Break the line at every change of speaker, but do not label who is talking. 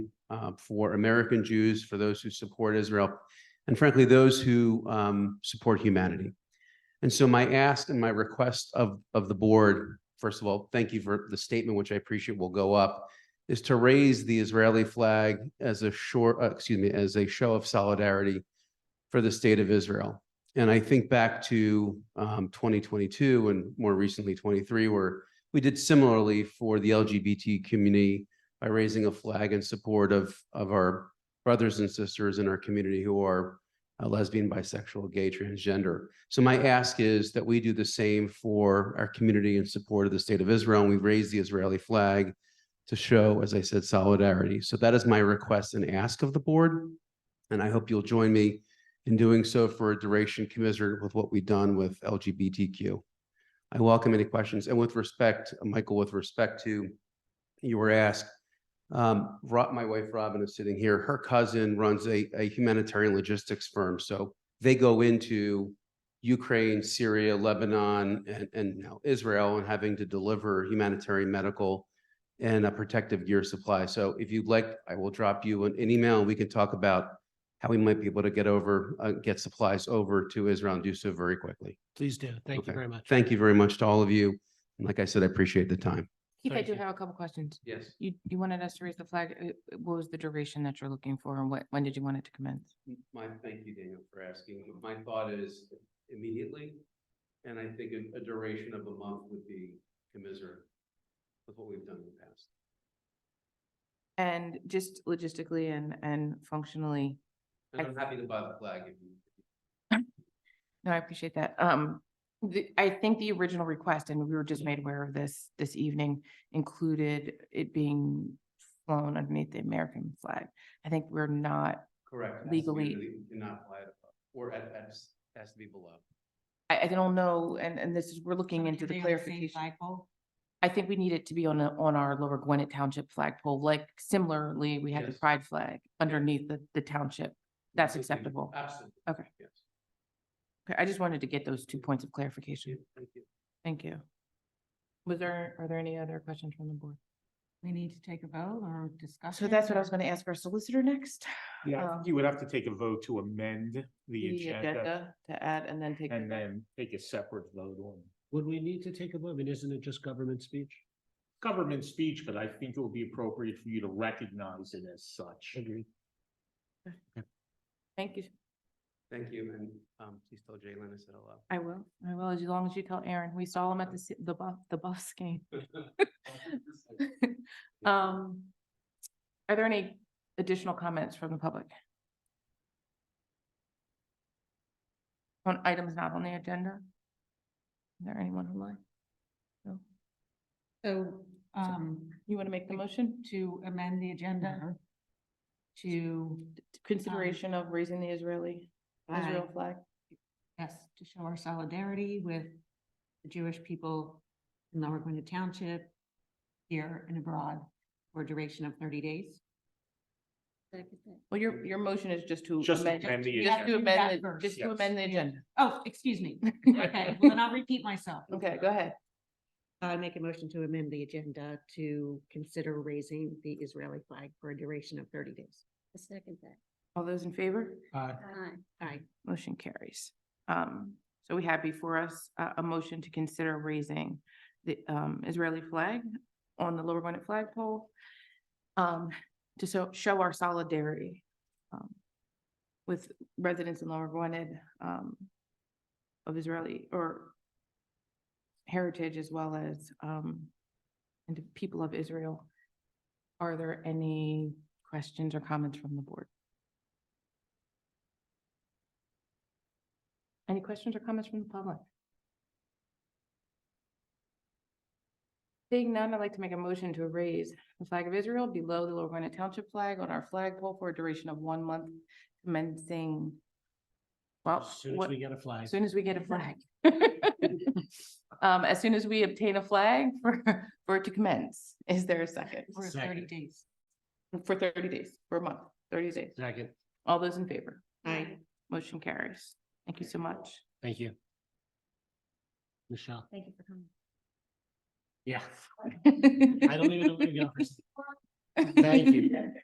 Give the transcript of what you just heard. uh, for American Jews, for those who support Israel, and frankly, those who um, support humanity. And so my ask and my request of, of the board, first of all, thank you for the statement, which I appreciate will go up, is to raise the Israeli flag as a short, uh, excuse me, as a show of solidarity for the state of Israel. And I think back to um, 2022 and more recently 23, where we did similarly for the LGBT community by raising a flag in support of, of our brothers and sisters in our community who are uh, lesbian, bisexual, gay, transgender. So my ask is that we do the same for our community in support of the state of Israel. And we raise the Israeli flag to show, as I said, solidarity. So that is my request and ask of the board. And I hope you'll join me in doing so for a duration commensurate with what we've done with LGBTQ. I welcome any questions. And with respect, uh, Michael, with respect to, you were asked, um, Rob, my wife Robin is sitting here. Her cousin runs a, a humanitarian logistics firm. So they go into Ukraine, Syria, Lebanon, and, and now Israel and having to deliver humanitarian medical and a protective gear supply. So if you'd like, I will drop you an, an email and we can talk about how we might be able to get over, uh, get supplies over to Israel and do so very quickly.
Please do. Thank
Okay.
you very much.
Thank you very much to all of you. And like I said, I appreciate the time.
Keith, I
Thank
do
you.
have a couple questions.
Yes.
You, you wanted us to raise the flag. uh, uh, What was the duration that you're looking for and what, when did you want it to commence?
My, thank you, Daniel, for asking. My thought is immediately, and I think a- a duration of a month would be commiserate with what we've done in the past.
And just logistically and, and functionally,
And I'm happy to buy the flag if you.
no, I appreciate that. Um, the, I think the original request, and we were just made aware of this this evening, included it being flown underneath the American flag. I think we're not,
Correct.
Legally.
You cannot fly it above, or at, at, has to be below.
I, I don't know, and, and this is, we're looking into the clarification. I think we need it to be on a, on our Lower Gwinnett Township flagpole, like similarly, we had the
Yes.
pride flag underneath the, the township. That's acceptable.
Absolutely.
Okay.
Yes.
Okay, I just wanted to get those two points of clarification.
Thank you.
Thank you. Was there, are there any other questions from the board?
We need to take a vote or discuss.
So that's what I was gonna ask our solicitor next.
Yeah, I
Um,
think you would have to take a vote to amend the
The
agenda
agenda to add and then take.
and then take a separate vote on
Would we need to take a vote? I mean, isn't it just government speech?
government speech, but I think it would be appropriate for you to recognize it as such.
Agreed.
Thank you.
Thank you, and, um, please tell Jalen I said hello.
I will. I will, as long as you tell Aaron. We saw him at the, si- the bu- the bus game. Um, are there any additional comments from the public? On items not on the agenda? Is there anyone online? No.
So, um,
You want to make the motion?
to amend the agenda to,
Consideration of raising the Israeli, Israel flag?
flag, yes, to show our solidarity with the Jewish people in Lower Gwinnett Township, here and abroad, for a duration of thirty days.
Well, your, your motion is just to
Just
amend,
amend the
just to
agenda. That
amend, the-
verse,
just to
yes.
amend the agenda.
Oh, excuse me. Okay, well, then I'll repeat myself.
Okay, go ahead.
I make a motion to amend the agenda to consider raising the Israeli flag for a duration of thirty days. A second that.
All those in favor?
Aye.
Aye.
Motion carries. Um, so we have before us a, a motion to consider raising the, um, Israeli flag on the Lower Gwinnett flagpole. Um, to so, show our solidarity, um, with residents in Lower Gwinnett, um, of Israeli or heritage as well as, um, and the people of Israel. Are there any questions or comments from the board? Any questions or comments from the public? Seeing none, I'd like to make a motion to raise the flag of Israel below the Lower Gwinnett Township flag on our flagpole for a duration of one month commencing. Well,
As soon as
Uh, what-
we get a flag.
as soon as we get a flag. Um, as soon as we obtain a flag for, for it to commence, is there a second?
For
Second.
thirty days.
For thirty days, for a month, thirty days.
Second.
All those in favor?
Aye.
Motion carries. Thank you so much.
Thank you. Michelle.
Thank you for coming.
Yeah.
I
I don't even know where to go. Thank you.